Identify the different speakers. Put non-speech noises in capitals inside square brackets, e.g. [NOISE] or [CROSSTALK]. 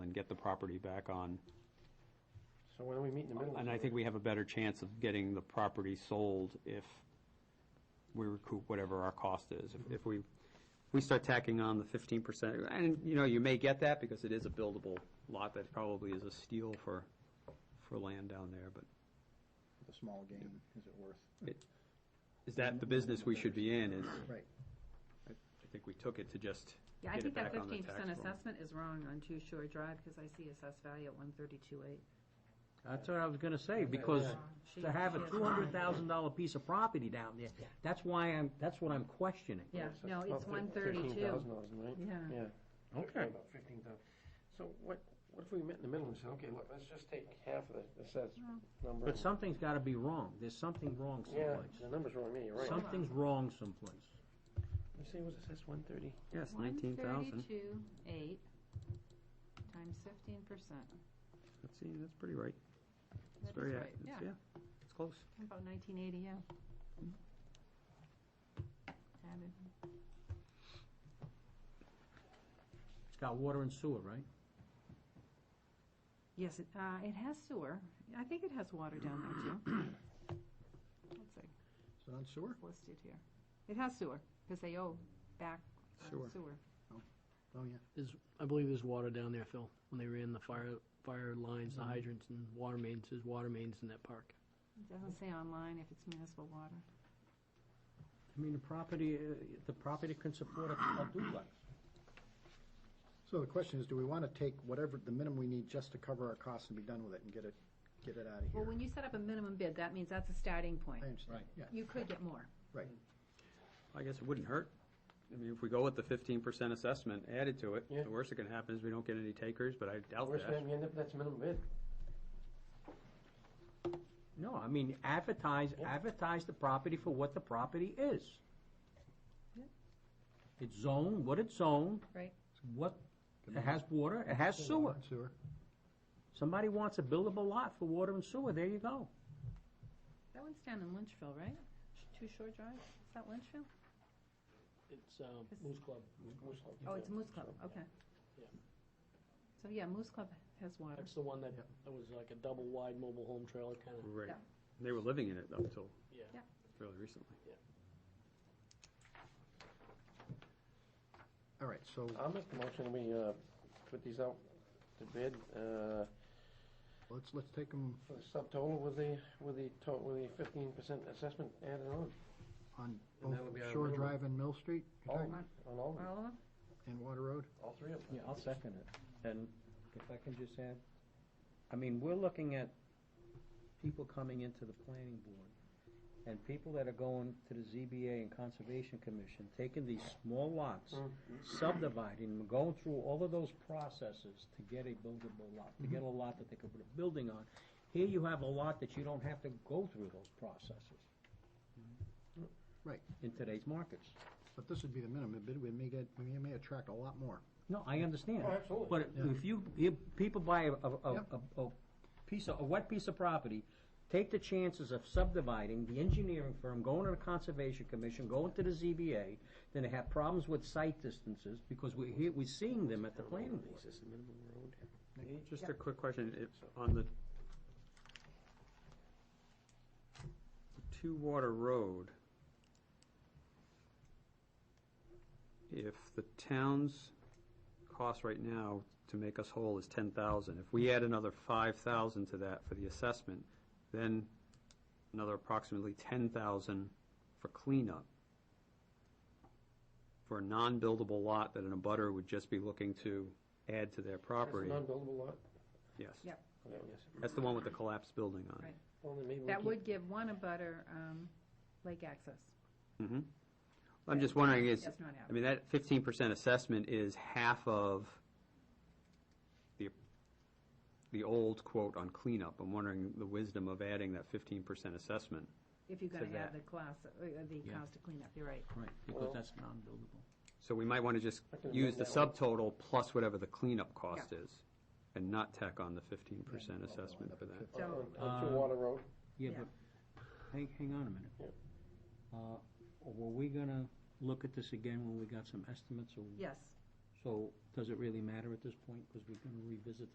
Speaker 1: and get the property back on.
Speaker 2: So when do we meet in the middle?
Speaker 1: And I think we have a better chance of getting the property sold if we recoup whatever our cost is. If- If we, we start tacking on the fifteen percent, and, you know, you may get that because it is a buildable lot that probably is a steal for, for land down there, but
Speaker 3: the small game, is it worth?
Speaker 1: is that the business we should be in? Is,
Speaker 3: Right.
Speaker 1: I think we took it to just
Speaker 4: Yeah, I
Speaker 1: get it
Speaker 4: think that
Speaker 1: back on the
Speaker 4: fifteen
Speaker 1: tax
Speaker 4: percent
Speaker 1: roll.
Speaker 4: assessment is wrong on Two Shore Drive, because I see assessed value at one thirty-two eight.
Speaker 5: That's what I was gonna say, because
Speaker 4: She-
Speaker 5: to have a
Speaker 4: she is
Speaker 5: two hundred thousand dollar piece of property down there, that's why I'm, that's what I'm questioning.
Speaker 4: Yeah, no, it's one thirty-two. Yeah.
Speaker 2: Yeah.
Speaker 5: Okay.
Speaker 2: About fifteen thousand. So what, what if we met in the middle and said, okay, look, let's just take half of the assessed
Speaker 4: Mm-hmm.
Speaker 2: number.
Speaker 5: But something's gotta be wrong, there's something wrong
Speaker 2: Yeah, the
Speaker 5: someplace.
Speaker 2: number's wrong, yeah, you're right.
Speaker 5: Something's wrong someplace.
Speaker 2: You say it was assessed one thirty?
Speaker 1: Yes, nineteen thousand.
Speaker 4: Thirty-two eight times fifteen percent.
Speaker 1: Let's see, that's pretty right. It's
Speaker 4: That's
Speaker 1: very,
Speaker 4: right,
Speaker 1: ac- it's-
Speaker 4: yeah,
Speaker 1: yeah, it's close.
Speaker 4: about nineteen eighty, yeah. Added.
Speaker 5: It's got water and sewer, right?
Speaker 4: Yes, it, uh, it has sewer. I think it has water down there too. [COUGHS] Let's see,
Speaker 3: Is it on sewer?
Speaker 4: it's listed here. It has sewer, because they owe back uh,
Speaker 3: Sewer.
Speaker 4: sewer.
Speaker 3: Oh, yeah.
Speaker 6: There's, I believe there's water down there, Phil, when they ran the fire, fire lines, the hydrants and water mains, there's water mains in that park.
Speaker 4: It doesn't say online if it's municipal water.
Speaker 5: I mean, the property, uh, the property can support a a duplex.
Speaker 3: So the question is, do we want to take whatever, the minimum we need just to cover our costs and be done with it and get it, get it out of
Speaker 4: Well,
Speaker 3: here?
Speaker 4: when you set up a minimum bid, that means that's a starting point.
Speaker 3: I understand, yeah,
Speaker 4: You could get more.
Speaker 3: right.
Speaker 1: I guess it wouldn't hurt. I mean, if we go with the fifteen percent assessment added to it,
Speaker 2: Yeah.
Speaker 1: the worst that can happen is we don't get any takers, but I doubt
Speaker 2: Where's
Speaker 1: that.
Speaker 2: that, you end up, that's minimum bid.
Speaker 5: No, I mean, advertise, advertise the property for what the property is.
Speaker 4: Yeah.
Speaker 5: It's zoned, what it's zoned.
Speaker 4: Right.
Speaker 5: What, it has water, it
Speaker 2: Uh,
Speaker 5: has sewer.
Speaker 3: Sewer.
Speaker 5: Somebody wants a buildable lot for water and sewer, there you go.
Speaker 4: That one's down in Lynchville, right? Two Shore Drive? Is that Lynchville?
Speaker 6: It's, um, Moose Club.
Speaker 2: Moose Lake.
Speaker 4: Oh, it's Moose Club, okay.
Speaker 6: Yeah.
Speaker 4: So, yeah, Moose Club has water.
Speaker 6: That's the one that, that was like a double wide mobile home trailer kind of,
Speaker 1: Right.
Speaker 4: Yeah.
Speaker 1: They were living in it up until
Speaker 6: yeah.
Speaker 4: Yeah.
Speaker 1: fairly recently.
Speaker 3: All right, so,
Speaker 2: I'll make the motion, we, uh, put these out to bid, uh,
Speaker 3: let's, let's take them
Speaker 2: for the subtotal with the, with the to, with the fifteen percent assessment added on.
Speaker 3: on
Speaker 2: And
Speaker 3: both
Speaker 2: that would be our
Speaker 3: Shore
Speaker 2: minimum.
Speaker 3: Drive and Mill Street you're
Speaker 2: All,
Speaker 3: talking,
Speaker 2: on all, of them,
Speaker 4: All of them?
Speaker 2: Oh.
Speaker 3: and Water Road.
Speaker 2: all three of them.
Speaker 5: Yeah, I'll second it. And if I can just add, I mean, we're looking at people coming into the planning board and people that are going to the ZBA and Conservation Commission, taking these small lots, subdividing them, going through all of those processes to get a buildable lot, to get a lot that they could put a building on. Here you have a lot that you don't have to go through those processes.
Speaker 3: Right.
Speaker 5: In today's markets.
Speaker 3: But this would be the minimum bid, we may get, we may attract a lot more.
Speaker 5: No, I understand.
Speaker 2: Oh, absolutely.
Speaker 5: But
Speaker 3: Yeah.
Speaker 5: if you, if people buy a, a,
Speaker 3: Yep.
Speaker 5: a, a piece of, a wet piece of property, take the chances of subdividing, the engineering firm, going to the conservation commission, going to the ZBA, then they have problems with site distances, because we're here, we're seeing them at the planning board.
Speaker 2: Is this the minimum road?
Speaker 1: Just a quick question, if, on the Two Water Road, if the town's cost right now to make us whole is ten thousand, if we add another five thousand to that for the assessment, then another approximately ten thousand for cleanup. For a non-buildable lot that an abutter would just be looking to add to their
Speaker 2: That's a
Speaker 1: property.
Speaker 2: non-buildable lot?
Speaker 1: Yes.
Speaker 4: Yep.
Speaker 2: Yeah, yes.
Speaker 1: That's the one with the collapsed building on
Speaker 4: Right.
Speaker 1: it.
Speaker 2: Well, then maybe we
Speaker 4: That
Speaker 2: keep-
Speaker 4: would give one a butter, um, lake access.
Speaker 1: Mm-hmm. I'm just wondering, is,
Speaker 4: That's not
Speaker 1: I
Speaker 4: happening.
Speaker 1: mean, that fifteen percent assessment is half of the, the old quote on cleanup. I'm wondering the wisdom of adding that fifteen percent assessment.
Speaker 4: If you're
Speaker 1: to
Speaker 4: gonna
Speaker 1: that.
Speaker 4: add the class, uh, uh, the
Speaker 5: Yeah.
Speaker 4: cost to clean up, you're right.
Speaker 5: Right,
Speaker 2: Well-
Speaker 5: because that's non-buildable.
Speaker 1: So we might want to just
Speaker 2: I can
Speaker 1: use the
Speaker 2: amend that one.
Speaker 1: subtotal plus whatever the cleanup cost is and not tack on the fifteen percent assessment for that.
Speaker 2: On,
Speaker 4: So-
Speaker 2: on Two
Speaker 5: Uh,
Speaker 2: Water Road,
Speaker 5: Yeah,
Speaker 4: Yeah.
Speaker 5: but, hang, hang on a
Speaker 2: Yeah.
Speaker 5: minute. Uh, were we gonna look at this again when we got some estimates, or
Speaker 4: Yes,
Speaker 5: So does it really matter at this point? Because we're going to revisit